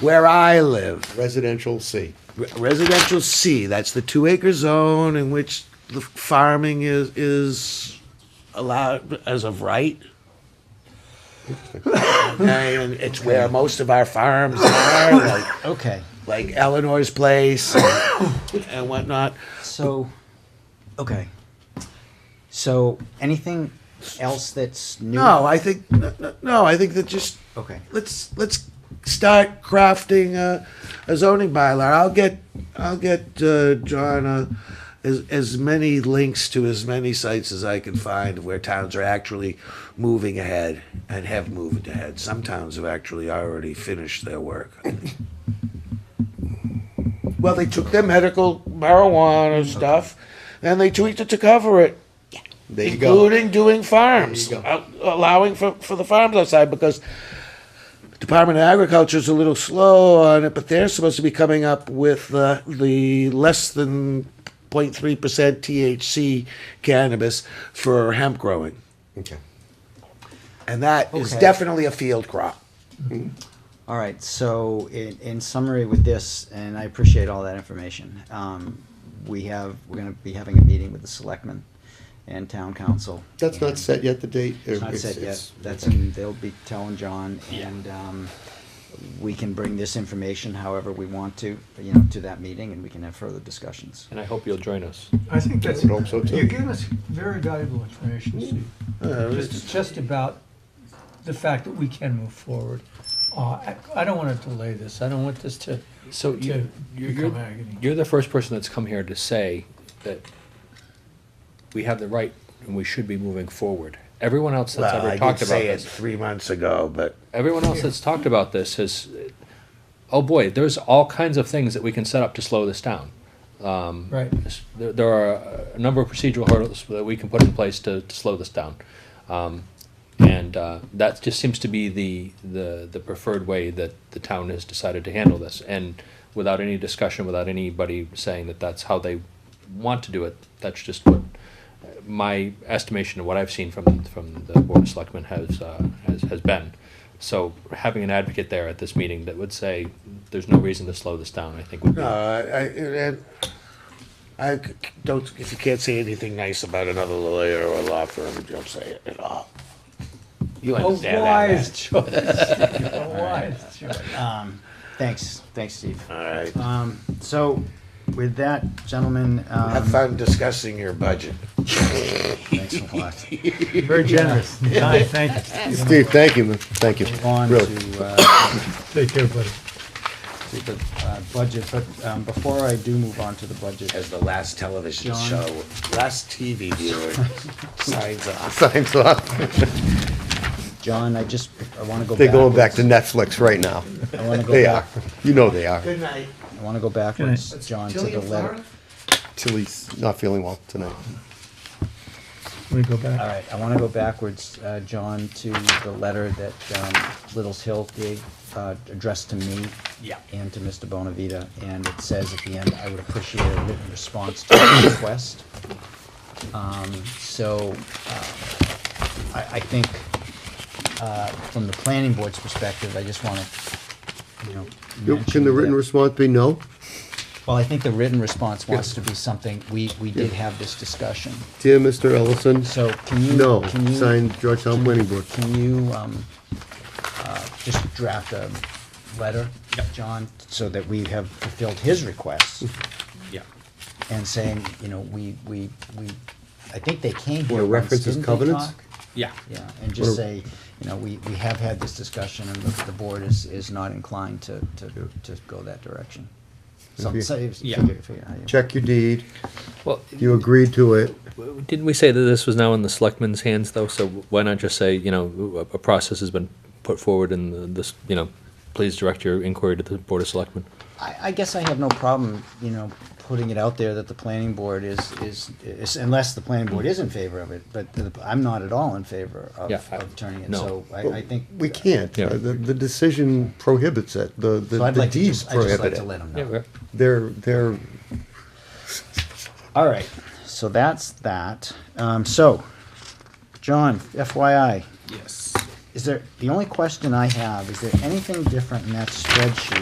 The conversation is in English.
where I live, residential C. re- residential C, that's the two acre zone in which the farming is, is allowed as of right. And it's where most of our farms are, like, Okay, like Eleanor's place and- and whatnot. so, okay. So, anything else that's new? No, I think, no, no, no, I think that just, Okay. let's, let's start crafting a, a zoning bylaw. I'll get, I'll get, uh, John, uh, as, as many links to as many sites as I can find where towns are actually moving ahead and have moved ahead. Some towns have actually already finished their work. Well, they took their medical marijuana Mm-hmm. stuff and they tweaked it to cover it There you go. including doing farms, There you go. al- allowing for, for the farms outside because Department of Agriculture is a little slow on it, but they're supposed to be coming up with uh, the less than 0.3% THC cannabis for hemp growing. Okay. And that is Okay. definitely a field crop. All right, so in, in summary with this, and I appreciate all that information, um, we have, we're gonna be having a meeting with the selectmen and town council. That's not and- set yet, the date? or It's not it's- set yet, it's- that's, in- they'll be telling John, and, um, we can bring this information however we want to, you know, to that meeting, and we can have further discussions. And I hope you'll join us. I think that's, would hope so, too. you're giving us very valuable information, Steve. Just, just about the fact that we can move forward. Uh, I, I don't wanna delay this, I don't want this to, So to you, you're, become you're, agony. you're the first person that's come here to say that we have the right and we should be moving forward. Everyone else that's Well, ever I did talked about say it this, three months ago, but everyone else that's talked about this has, oh boy, there's all kinds of things that we can set up to slow this down. Right, This- There, there are a number of procedural hurdles that we can put in place to, to slow this down. Um, and uh, that just seems to be the, the, the preferred way that the town has decided to handle this. And without any discussion, without anybody saying that that's how they want to do it, that's just what my estimation of what I've seen from, from the Board of Selectmen has, uh, has, has been. So having an advocate there at this meeting that would say, there's no reason to slow this down, I think would be. No, I, I, and I c- don't, if you can't say anything nice about another lawyer or law firm, don't say it at all. You a understand that? wise choice, a wise choice. Um, thanks, thanks, Steve. All right. Um, so, with that, gentlemen, um. Have fun discussing your budget. Thanks a lot. Very generous, Don, thank you. Steve, thank you, man. Thank you. Move on Really. to, uh, Take care, buddy. to the, uh, budget, but, um, before I do move on to the budget, As the last television John? show, last TV viewer signs off. Signs off. John, I just, I wanna go back. They're going back to Netflix right now. I wanna go They are. back, You know they are. Good night. I wanna go backwards, John, to the letter. Tilly's not feeling well tonight. Let me go back. All right, I wanna go backwards, uh, John, to the letter that, um, Little's Hill gave, uh, addressed to me. Yeah. And to Mr. Bonavita, and it says at the end, I would appreciate a written response to the request. Um, so, uh, I, I think, uh, from the planning board's perspective, I just wanna, you know. mention Can the written that- response be no? Well, I think the written response wants to be something, we, we did have this discussion, Dear Mr. Ellison, so can you? no. can you- Signed, Georgetown Planning Board. Can you, um, uh, just draft a letter, John, so that we have fulfilled his request? Yeah. and saying, you know, we, we, we, I think they came here Wanna once, reference his didn't they covenants? talk? Yeah. Yeah, and just Wanna- say, you know, we, we have had this discussion and the, the board is, is not inclined to, to, to go that direction. Some, If say, Yeah. figure, figure how you. Check your deed. Well, You agreed to it. Didn't we say that this was now in the selectmen's hands, though? So why not just say, you know, a a process has been put forward and the- this, you know, please direct your inquiry to the Board of Selectmen? I, I guess I have no problem, you know, putting it out there that the planning board is, is, is, unless the planning board is in favor of it, but the- I'm not at all in favor of, Yeah, I- of turning it, no. so I, I think. We can't. Yeah. Uh, The, the decision prohibits it. The, the So I'd the like to deeds just, I'd just prohibit like to it. let them know. They're, they're, All right, so that's that. Um, so, John, FYI, Yes. is there, the only question I have, is there anything different in that spreadsheet